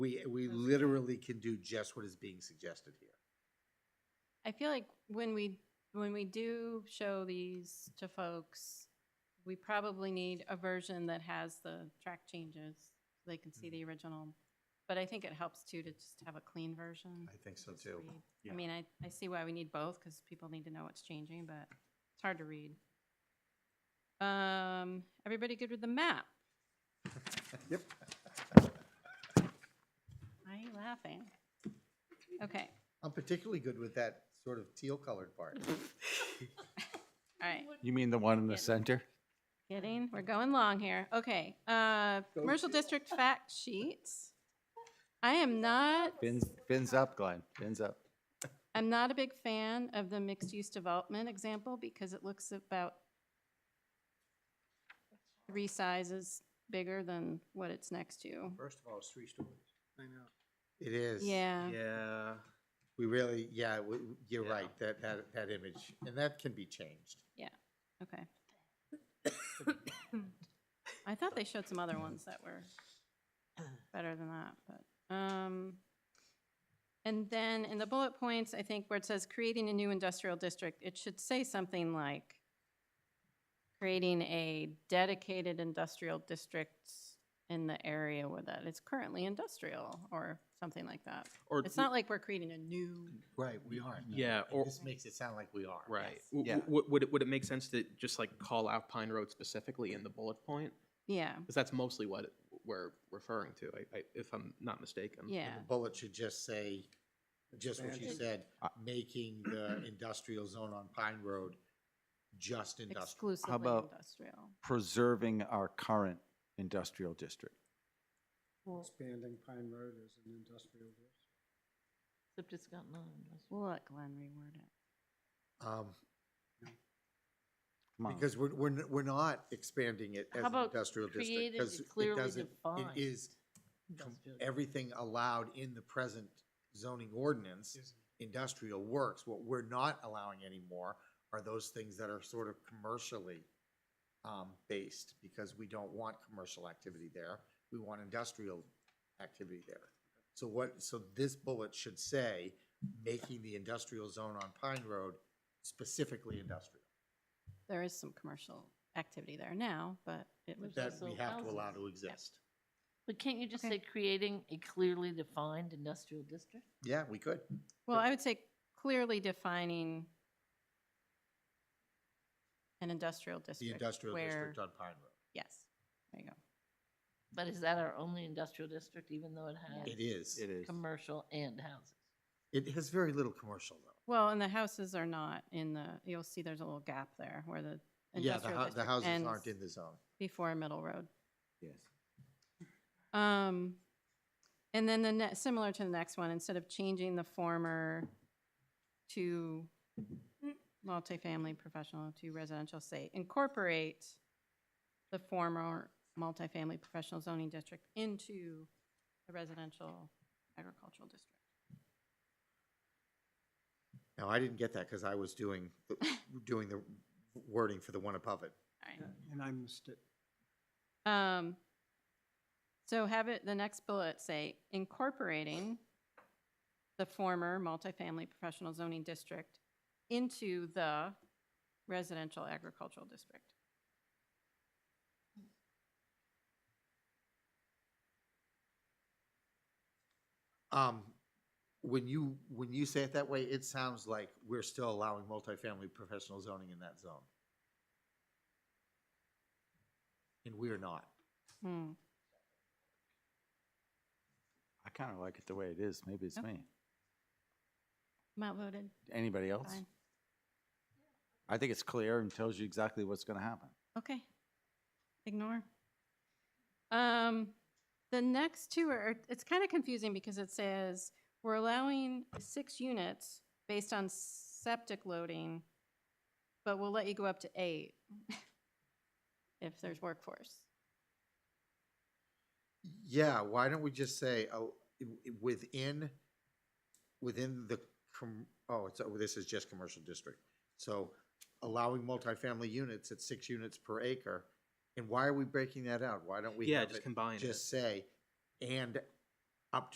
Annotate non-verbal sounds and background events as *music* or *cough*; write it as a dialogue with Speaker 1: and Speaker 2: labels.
Speaker 1: We, we literally can do just what is being suggested here.
Speaker 2: I feel like when we, when we do show these to folks, we probably need a version that has the track changes, so they can see
Speaker 1: Mm-hmm.
Speaker 2: the original. But I think it helps too to just have a clean version.
Speaker 1: I think so
Speaker 2: just
Speaker 1: too.
Speaker 2: read.
Speaker 3: Yeah.
Speaker 2: I mean, I, I see why we need both, because people need to know what's changing, but it's hard to read. Um, everybody good with the map?
Speaker 1: *laughs* Yep.
Speaker 2: Why are you laughing? Okay,
Speaker 1: I'm particularly good with that sort of teal colored part.
Speaker 2: all right.
Speaker 3: You mean the one in
Speaker 2: Yeah.
Speaker 3: the center?
Speaker 2: Kidding, we're going long here. Okay, uh,
Speaker 1: Go
Speaker 2: commercial district fact sheets. I am not,
Speaker 3: Fins, fins up, Glenn, fins up.
Speaker 2: I'm not a big fan of the mixed-use development example because it looks about three sizes bigger than what it's next to.
Speaker 4: First of all, it's three stories. I know.
Speaker 1: It is.
Speaker 2: Yeah,
Speaker 4: Yeah.
Speaker 1: We really, yeah, we, you're
Speaker 4: Yeah.
Speaker 1: right, that, that, that image, and that can be changed.
Speaker 2: okay. *coughs* I thought they showed some other ones that were better than that, but, um, and then in the bullet points, I think where it says creating a new industrial district, it should say something like creating a dedicated industrial district in the area where that is currently industrial, or something like that.
Speaker 4: Or,
Speaker 2: It's not like we're creating a new,
Speaker 1: Right, we aren't.
Speaker 4: Yeah, or-
Speaker 1: This makes it sound like we are.
Speaker 4: right.
Speaker 2: Yes.
Speaker 4: W-
Speaker 3: Yeah.
Speaker 4: w- w- Would it, would it make sense to just like call out Pine Road specifically in the bullet point?
Speaker 2: yeah,
Speaker 4: Because that's mostly what it- we're referring to, I, I, if I'm not mistaken.
Speaker 2: yeah,
Speaker 1: And the bullet should just say, just what you
Speaker 2: Expansion.
Speaker 1: said, making
Speaker 5: *clears throat*
Speaker 1: the industrial zone on Pine Road just industrial.
Speaker 2: exclusively
Speaker 3: about-
Speaker 2: industrial.
Speaker 3: Preserving our current industrial district.
Speaker 6: Expanding Pine Road as an industrial district.
Speaker 5: Except it's got non-industrial.
Speaker 2: We'll let Glenn reword it.
Speaker 1: Um,
Speaker 3: Come on.
Speaker 1: Because we're, we're, n- we're not expanding it as an
Speaker 5: about
Speaker 1: industrial district.
Speaker 5: created
Speaker 1: because
Speaker 5: and
Speaker 1: it
Speaker 5: clearly
Speaker 1: doesn't- It
Speaker 5: defined
Speaker 1: is com-
Speaker 5: industrial district.
Speaker 1: everything allowed in the present zoning ordinance, industrial works. What we're not allowing anymore are those things that are sort of commercially um, based, because we don't want commercial activity there. We want industrial activity there. So what, so this bullet should say, making the industrial zone on Pine Road specifically industrial.
Speaker 2: There is some commercial activity there now, but it was,
Speaker 5: There's
Speaker 1: That we
Speaker 5: also
Speaker 1: have to allow
Speaker 5: houses.
Speaker 1: to exist.
Speaker 5: But can't you just
Speaker 2: Okay.
Speaker 5: say creating a clearly defined industrial district?
Speaker 1: Yeah, we could.
Speaker 2: well, I would say clearly defining an industrial
Speaker 1: The
Speaker 2: district.
Speaker 1: industrial
Speaker 2: where-
Speaker 1: district on Pine Road.
Speaker 2: Yes, there you go.
Speaker 5: But is that our only industrial district, even though it has
Speaker 1: It is.
Speaker 3: It is.
Speaker 5: commercial and houses?
Speaker 1: It has very little commercial though.
Speaker 2: Well, and the houses are not in the, you'll see there's a little gap there where the
Speaker 1: Yeah, the, hou-
Speaker 2: industrial
Speaker 1: the
Speaker 2: district
Speaker 1: houses
Speaker 2: ends
Speaker 1: aren't in the zone.
Speaker 2: before Middle Road.
Speaker 3: Yes.
Speaker 2: Um, and then the ne- similar to the next one, instead of changing the former to multifamily professional to residential, say incorporate the former multifamily professional zoning district into the residential agricultural district.
Speaker 1: No, I didn't get that because I was doing, the- doing the wording for the one above it.
Speaker 2: All right.
Speaker 6: And I missed it.
Speaker 2: Um, so have it, the next bullet say incorporating the former multifamily professional zoning district into the residential agricultural district.
Speaker 1: Um, when you, when you say it that way, it sounds like we're still allowing multifamily professional zoning in that zone. And we are not.
Speaker 2: Hmm.
Speaker 3: I kind of like it the way it is. Maybe it's
Speaker 2: Okay.
Speaker 3: me.
Speaker 2: I'm outvoted.
Speaker 3: Anybody else?
Speaker 2: Fine.
Speaker 3: I think it's clear and tells you exactly what's going to happen.
Speaker 2: Okay. Ignore. Um, the next two are, it's kind of confusing because it says we're allowing six units based on septic loading, but we'll let you go up to eight *laughs* if there's workforce.
Speaker 1: Yeah, why don't we just say, oh, i- i- within, within the, com- oh, it's, oh, this is just commercial district. So allowing multifamily units at six units per acre, and why are we breaking that out? Why don't we
Speaker 4: Yeah,
Speaker 1: have
Speaker 4: just
Speaker 1: it
Speaker 4: combine it.
Speaker 1: just say, and